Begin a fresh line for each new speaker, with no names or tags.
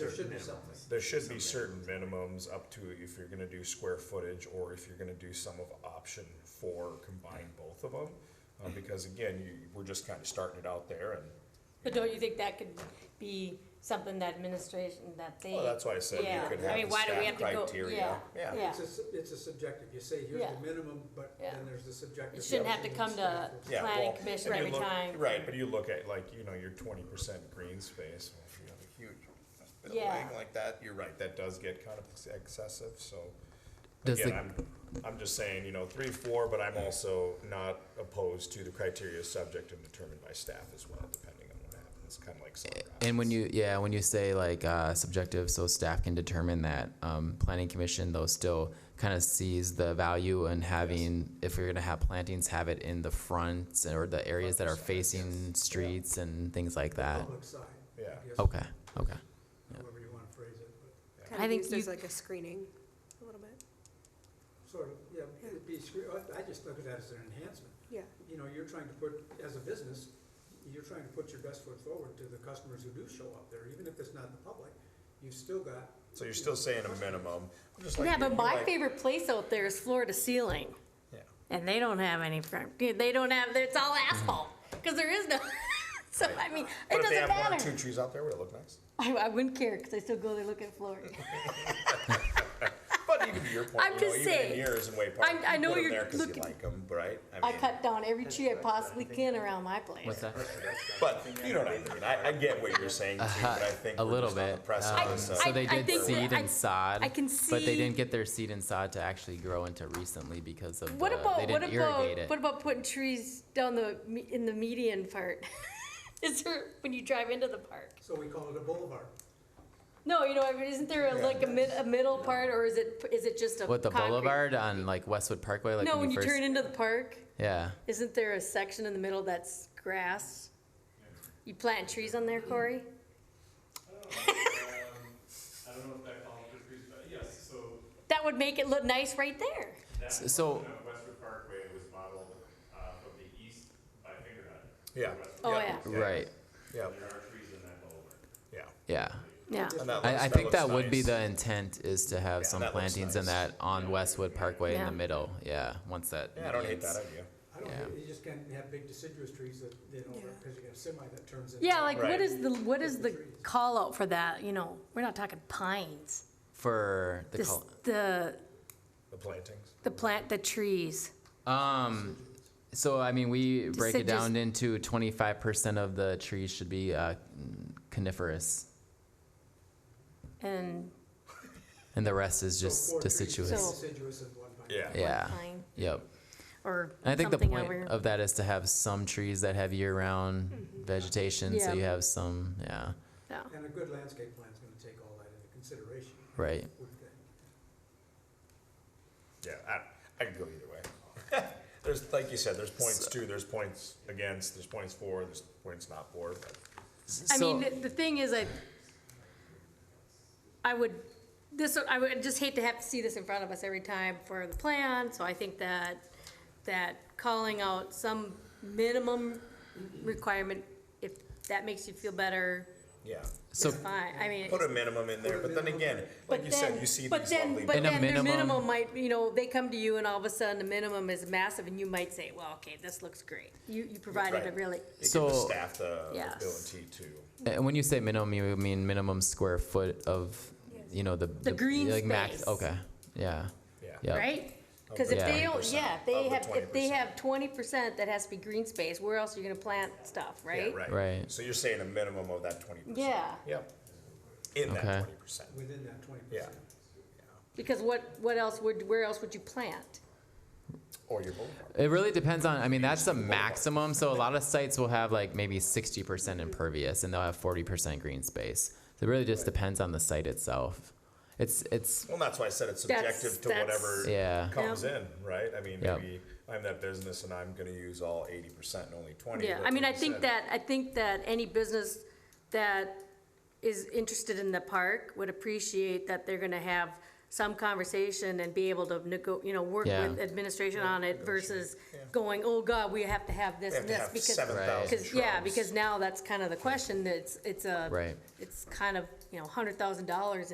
should be
minimums.
something.
There should
Some
be certain minimums up to if you're gonna do square footage or if you're gonna do some of option four, combine both of them. Uh, because again, you, we're just kinda starting it out there and,
But don't you think that could be something that administration, that they?
well, that's why I said
Yeah.
you could
I
have
mean,
the
why do we
staff
have to go-
criteria,
yeah,
yeah,
yeah.
It's a, su- it's a subjective, you say here's
Yeah.
the minimum, but
Yeah.
then there's the subjective.
It shouldn't have to come
definition
to
of
yeah.
planning
well,
commission
and you
every
look-
time.
Right, but you look at like, you know, your twenty percent green space, well, if you have a huge
Yeah.
building like that, you're right, that does get kind of ex- excessive, so.
Does
Again,
the-
I'm, I'm just saying, you know, three, four, but I'm also not opposed to the criteria subject and determined by staff as well, depending on what happens, kind of like soccer.
And when you, yeah, when you say like uh, subjective, so staff can determine that, um, planning commission though still kind of sees the value in having, if we're gonna have plantings, have it in the fronts or the areas that are facing streets and things like that.
Public side. I
Yeah.
guess,
Okay, okay.
However you wanna phrase it, but
Kind
I
of
think
used
you-
as like a screening, a little bit,
sort of, yeah, it'd be, scre- I- I just look at that as an enhancement.
yeah.
You know, you're trying to put, as a business, you're trying to put your best foot forward to the customers who do show up there, even if it's not the public, you've still got.
So you're still saying a minimum, just like.
Yeah,
you-
but
you
my
like-
favorite place out there is floor to ceiling,
Yeah.
and they don't have any. front- They don't have. It's all asphalt because there is no. so I mean,
But
it
if they have
doesn't
one or
matter.
two trees out there, would it look nice?
I, I wouldn't care because I still go there looking for it.
But even to your point,
I'm
you know,
just
even in
saying.
yours in Way Park,
I- I
you
know
put 'em
you're
there 'cause you
looking-
like 'em, right?
I
mean,
cut down every tree I possibly can around my place.
What's that?
But you know what I mean, I, I get what you're saying too, but I think
Uh-huh. A
we're
little
just on the
bit,
precipice
um,
of-
So-
So they
I
did
think that
seed
I-
and sod.
I can
But
see-
they didn't get their seed and sod to actually grow into recently because of the,
What
they
about what
didn't irrigate
about
it.
what about putting trees down the me- in the median part? Is there when you drive into the park?
So we call it a boulevard.
No, you know, I mean, isn't there a, like a mid a middle part, or is it is it just a
What, the
concrete-
boulevard on like Westwood Parkway? Like
no, when you
first-
turn into the park,
Yeah.
isn't there a section in the middle that's grass? You plant trees on there, Corey?
Um, I don't know if that calls for trees, but yes, so
That would make it look nice right there.
that
S- so-
portion of Westwood Parkway was modeled uh, from the east by Fingerhut.
Yeah.
Oh
Yeah.
yeah,
Right.
Yeah,
There are trees in that boulevard.
yeah.
Yeah.
yeah.
And that looks-
I, I think
looks
that would be
nice.
the intent is to have
Yeah,
some
that looks
plantings in
nice.
that on Westwood Parkway in
Yeah.
the middle. Yeah, once that.
Yeah, I don't hate that
median's-
idea.
I don't,
Yeah.
you just can't have big deciduous trees that, you know,
Yeah.
because you got a semi that turns into.
Yeah, like
Right.
what is the what is the
Trees.
call out for that? You know, we're not talking pines.
For the
This,
col-
the
The plantings.
the plant the trees.
um, so I mean we break
said
it
just-
down into twenty five percent of the trees should be uh, coniferous,
and
and the rest is
So
just
four trees,
deciduous.
So-
Deciduous and one pine.
Yeah.
yeah.
pine
Yep.
or
And I think the
something
point
over.
of that is to have some trees that have year round vegetation,
Mm-hmm. Yeah.
so you have some. Yeah.
yeah.
And a good landscape plan's gonna take all that into consideration,
Right.
wouldn't they?
Yeah, I, I could go either way. There's, like you said, there's points too, there's points against, there's points for, there's points not for, but
I
So-
mean, the- the thing is, I, I would, this, I would just hate to have to see this in front of us every time for the plan, so I think that, that calling out some minimum requirement, if that makes you feel better,
yeah.
is
So
fine, I mean.
Put a minimum in there, but then again, like
but
you
then-
said, you see
but
these
then-
lovely.
But
And a
then their
minimum-
minimum might, you know, they come to you and all of a sudden the minimum is massive and you might say, well, okay, this looks great. You, you provided a
Right.
really,
It gives the
So-
staff the
Yes.
ability to,
And when you say minimum, you mean minimum square foot of, you know, the. The
green
like max-
space.
Okay, yeah,
yeah.
yeah.
right? Because if
the
they don't,
20%,
yeah, if they
of the
have, if they
20%.
have twenty percent that has to be green space, where else are you gonna plant stuff,
Yeah,
right?
right.
Right.
So you're saying a minimum of that twenty percent?
Yeah,
Yep. In
Okay.
that twenty percent,
Within that twenty
yeah.
percent.
because what, what else would, where else would you plant?
Or your boulevard.
It really depends on, I mean, that's the maximum, so a lot of sites will have like maybe sixty percent impervious and they'll have forty percent green space. So it really just depends on the site itself. It's, it's,
Well, that's why I said it's
That's-
subjective to
that's-
whatever
Yeah.
comes in, right? I mean,
Yep.
maybe I'm that business and I'm gonna use all eighty percent and only twenty.
Yeah,
but
I mean, I
like you
think
said,
that, I think that any business that is interested in the park would appreciate that they're gonna have some conversation and be able to nego, you know, work
Yeah.
with administration on it versus
Yeah.
going, oh God, we have to have this
They have to
and this
have
because.
seven thousand
Because, yeah, because now that's kind of the question, that it's, it's a.
Right.
It's kind of, you know, hundred thousand dollars